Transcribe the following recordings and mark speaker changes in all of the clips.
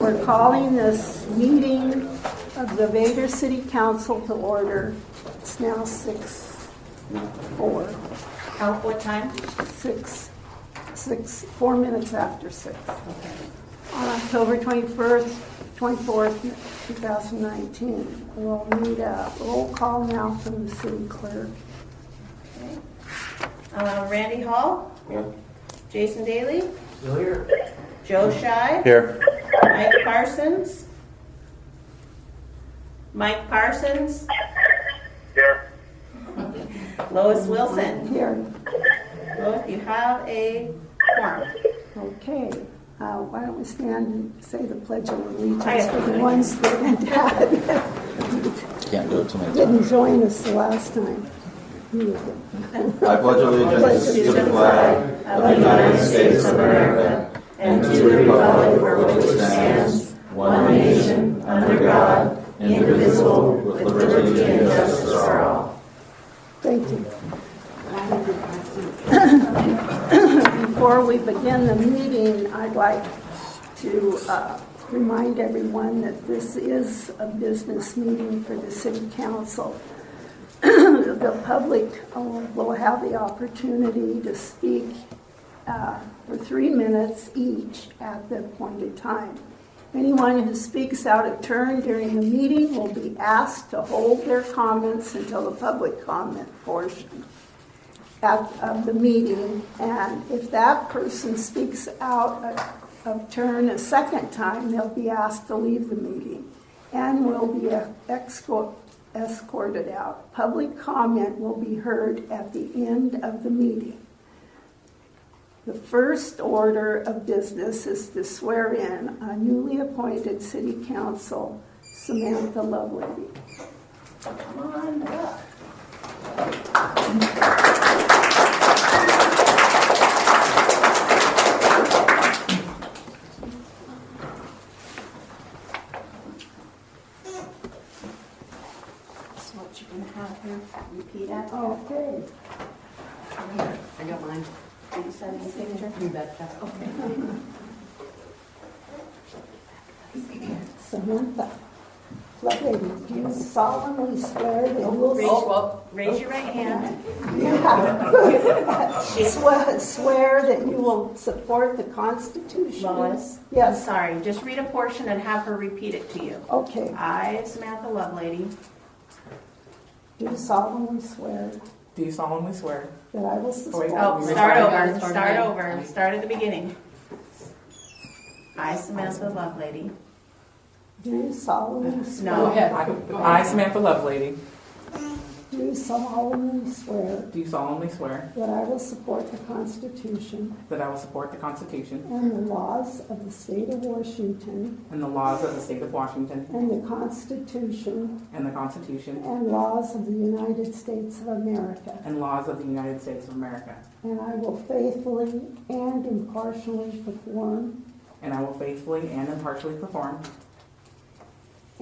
Speaker 1: We're calling this meeting of the Vader City Council to order. It's now six, four,
Speaker 2: How, what time?
Speaker 1: six, six, four minutes after six.
Speaker 2: Okay.
Speaker 1: On October 21st, 24th, 2019. We'll need a roll call now from the city clerk.
Speaker 2: Uh, Randy Hall? Jason Daly? Joe Shy?
Speaker 3: Here.
Speaker 2: Mike Parsons? Mike Parsons?
Speaker 4: Here.
Speaker 2: Lois Wilson?
Speaker 1: Here,
Speaker 2: Lois, you have a quorum.
Speaker 1: okay. Uh, Why don't we stand and say the Pledge of Allegiance for the ones that
Speaker 3: Can't do it too many times.
Speaker 1: didn't join us the last time.
Speaker 5: I pledge allegiance to the flag of the United States of America and to the republic for which it stands, one nation, under God, indivisible, with liberty and justice for all.
Speaker 1: Thank you. Before we begin the meeting, I'd like to uh, remind everyone that this is a business meeting for the city council. The public uh, will have the opportunity to speak uh, for three minutes each at the appointed time. Anyone who speaks out of turn during the meeting will be asked to hold their comments until the public comment portion at- of the meeting. And if that person speaks out of- of turn a second time, they'll be asked to leave the meeting and will be uh, escort- escorted out. Public comment will be heard at the end of the meeting. The first order of business is to swear in a newly appointed city council, Samantha Lovelady.
Speaker 2: Come on up. That's what you're gonna have here. Repeat after.
Speaker 1: Okay.
Speaker 2: I got mine. Can you send me a picture? You betcha. Okay.
Speaker 1: Samantha Lovelady, do you solemnly swear that you
Speaker 2: Raise-
Speaker 1: will
Speaker 2: Raise your right hand.
Speaker 1: swear- swear that you will support the Constitution?
Speaker 2: Lois? I'm
Speaker 1: Yes,
Speaker 2: sorry, just read a portion and have her repeat it to you.
Speaker 1: okay.
Speaker 2: I, Samantha Lovelady,
Speaker 1: Do you solemnly swear
Speaker 6: Do you solemnly swear?
Speaker 1: that I will
Speaker 6: wait.
Speaker 2: Oh,
Speaker 1: support?
Speaker 6: Sorry.
Speaker 2: start
Speaker 6: Sorry.
Speaker 2: over, start over, start at the beginning. I, Samantha Lovelady.
Speaker 1: Do you solemnly swear?
Speaker 2: No,
Speaker 6: I, Samantha Lovelady,
Speaker 1: Do you solemnly swear
Speaker 6: do solemnly swear
Speaker 1: that I will support the Constitution
Speaker 6: that I will support the Constitution
Speaker 1: And the laws of the state of Washington
Speaker 6: and the laws of the state of Washington
Speaker 1: and the Constitution
Speaker 6: and the Constitution
Speaker 1: and laws of the United States of America.
Speaker 6: and laws of the United States of America.
Speaker 1: And I will faithfully and impartially perform
Speaker 6: And I will faithfully and impartially perform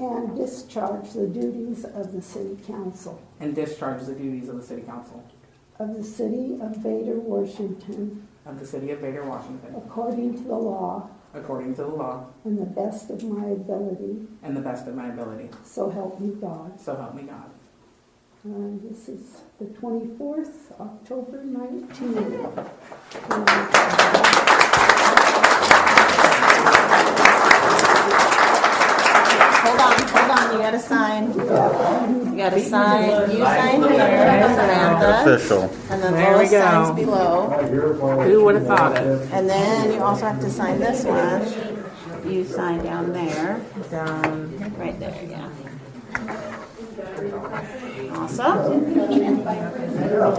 Speaker 1: and discharge the duties of the city council
Speaker 6: and discharge the duties of the City Council
Speaker 1: of the city of Vader, Washington,
Speaker 6: of the City of Vader, Washington,
Speaker 1: according to the law
Speaker 6: according to the law
Speaker 1: and the best of my ability.
Speaker 6: and the best of my ability.
Speaker 1: So help me God.
Speaker 6: So help me God.
Speaker 1: Uh, This is the 24th, October 19th.
Speaker 7: Hold on, hold on, you gotta sign. You gotta sign, you sign here, Samantha,
Speaker 3: Official.
Speaker 7: and then
Speaker 6: There we
Speaker 7: Lois signs
Speaker 6: go.
Speaker 7: below.
Speaker 6: Who would have thought it?
Speaker 7: And then you also have to sign this one. You sign down there,
Speaker 6: Down.
Speaker 7: right there, yeah. Awesome.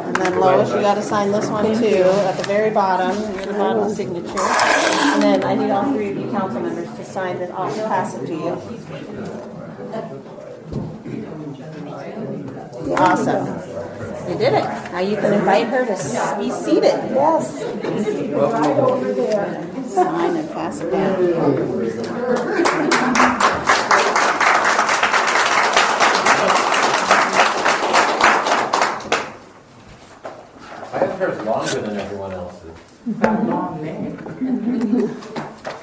Speaker 7: And then Lois, you gotta sign this one too, at the very bottom, near the bottom signature. And then I need all three of you council members to sign this, I'll pass it to you. Awesome. You did it. Now you can invite her to s- be seated. Yes.
Speaker 1: Right over there.
Speaker 7: Sign and pass it down.